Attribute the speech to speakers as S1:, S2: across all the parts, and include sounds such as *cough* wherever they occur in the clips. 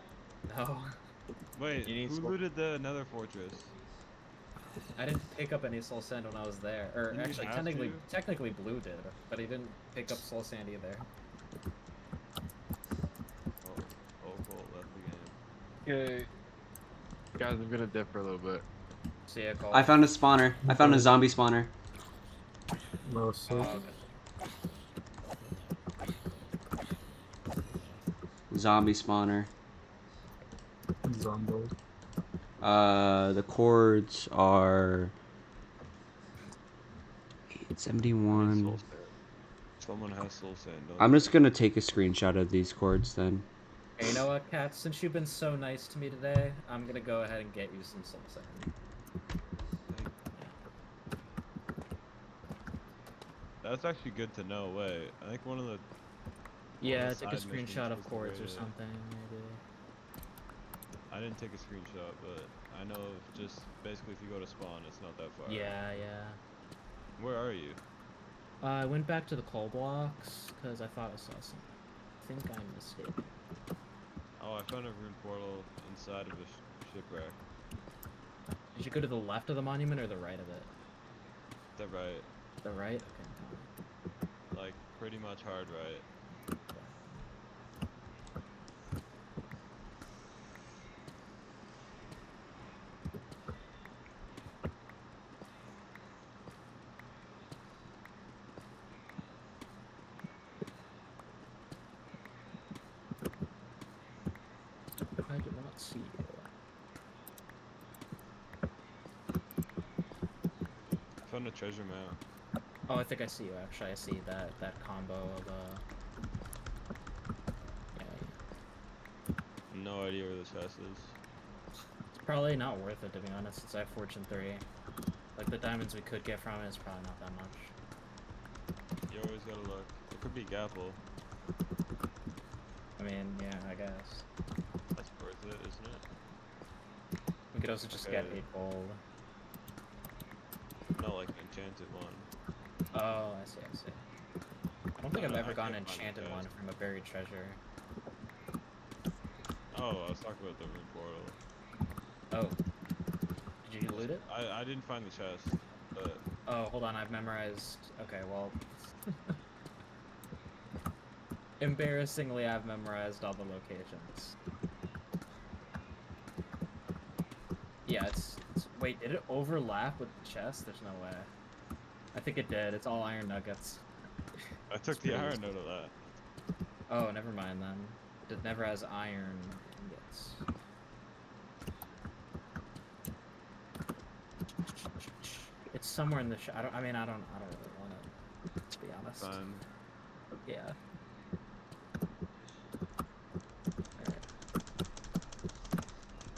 S1: *laughs* No,
S2: Wait,
S3: You need
S2: who
S3: score-
S2: looted the another fortress?
S1: I didn't pick up any soul sand when I was there. Or
S2: You didn't
S1: actually,
S2: have
S1: technically,
S2: to?
S1: technically Blue did, but he didn't pick up soul sand either.
S2: Oh, oh, Colt left the game.
S4: Okay. Guys, I'm gonna dip for a little bit.
S1: See ya, Cole.
S5: I found a spawner. I found a zombie spawner.
S6: No,
S1: Oh,
S6: so
S1: okay.
S5: Zombie spawner.
S6: zombo.
S5: Uh, the cords are
S3: Soul
S5: 871.
S3: Sand.
S2: Someone has soul sand. don't
S5: I'm
S2: they?
S5: just gonna take a screenshot of these cords then.
S1: Hey, you know what, Kat? Since you've been so nice to me today, I'm gonna go ahead and get you some soul sand.
S2: That's actually good to know. Wait, I think one of the
S7: Yeah,
S2: the
S7: take a
S2: side missions
S7: screenshot
S2: was
S7: of
S2: the
S7: cords or
S2: greatest.
S7: something. Maybe.
S2: I didn't take a screenshot, but I know of just basically if you go to spawn, it's not that far.
S7: Yeah, yeah.
S2: Where are you?
S7: Uh, I went back to the coal blocks because I thought I saw some. I think I'm mistaken.
S2: Oh, I found a rune portal inside of a sh- shipwreck.
S7: Did you go to the left of the monument or the right of it?
S2: Is that right?
S7: The right. Okay.
S2: Like pretty much hard right.
S7: I did not see you.
S2: I found a treasure map.
S7: Oh, I think I see you. Actually, I see that that combo of uh. Yeah,
S2: No idea where this house is.
S7: it's probably not worth it to be honest. Since I have fortune three, like the diamonds we could get from it is probably not that much.
S2: You always gotta look. It could be Gapple.
S7: I mean, yeah, I guess.
S2: That's worth it, isn't it?
S7: We could also just get
S2: Okay.
S7: eight gold.
S2: Not like an enchanted one.
S7: Oh, I see, I see. I don't think
S2: No,
S7: I've
S2: no,
S7: ever
S2: I
S7: gotten
S2: can't find it,
S7: enchanted
S2: guys.
S7: one from a buried treasure.
S2: Oh, I was talking about the rune portal.
S7: Oh. Did you loot it?
S2: I, I didn't find the chest, but
S7: Oh, hold on, I've memorized. Okay, well. Embarrassingly, I've memorized all the locations. Yeah, it's, it's. Wait, did it overlap with the chest? There's no way. I think it did. It's all iron nuggets.
S2: I took the
S7: pretty
S2: iron
S7: easy.
S2: out of that.
S7: Oh, never mind then. It never has iron ingots. It's somewhere in the. Sh- I don't. I mean, I don't. I don't really want it. To be honest.
S2: Fine.
S7: Yeah.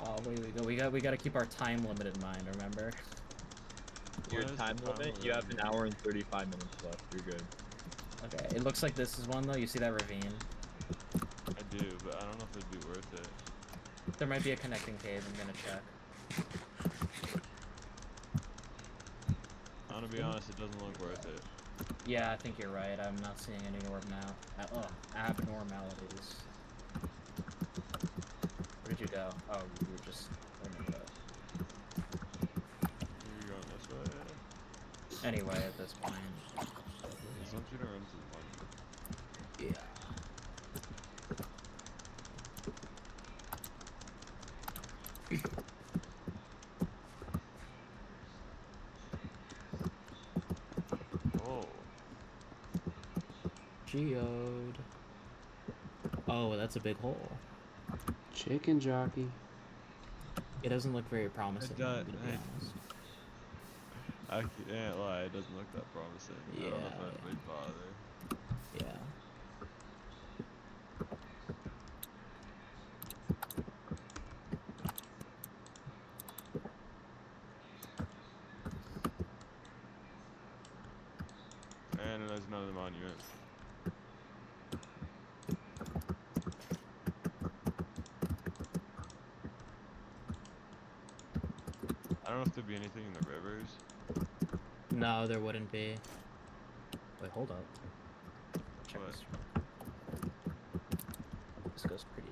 S7: Alright. Oh, wait, we go. We got. We got to keep our time limit in mind. Remember.
S3: Your
S2: What is the
S3: time
S2: problem
S3: limit?
S2: with
S3: You
S2: that?
S3: have an hour and 35 minutes left. You're good.
S7: Okay. It looks like this is one though. You see that ravine?
S2: I do, but I don't know if it'd be worth it.
S7: There might be a connecting cave. I'm gonna check.
S2: I'm gonna be
S3: Mm-hmm.
S2: honest, it doesn't look worth it.
S7: Yeah, I think you're right. I'm not seeing any normal uh, ugh, abnormalities. Where did you go? Oh, you were just. in the middle.
S2: You're going this way.
S7: Anyway, at this point.
S2: Just want you to run to the one.
S7: Yeah.
S2: *coughs* Oh,
S7: Geode. Oh, that's a big hole.
S5: Chicken jockey.
S7: It doesn't look very promising.
S2: do-
S7: I'm gonna be
S2: I-
S7: honest.
S2: I can't lie, it doesn't look that promising. I don't know
S7: Yeah.
S2: if I'd really bother.
S7: Yeah.
S2: And there's another monument. I don't know if there'd be anything in the rivers.
S7: No, there wouldn't be. Wait, hold up. Check
S2: What?
S7: this. This goes pretty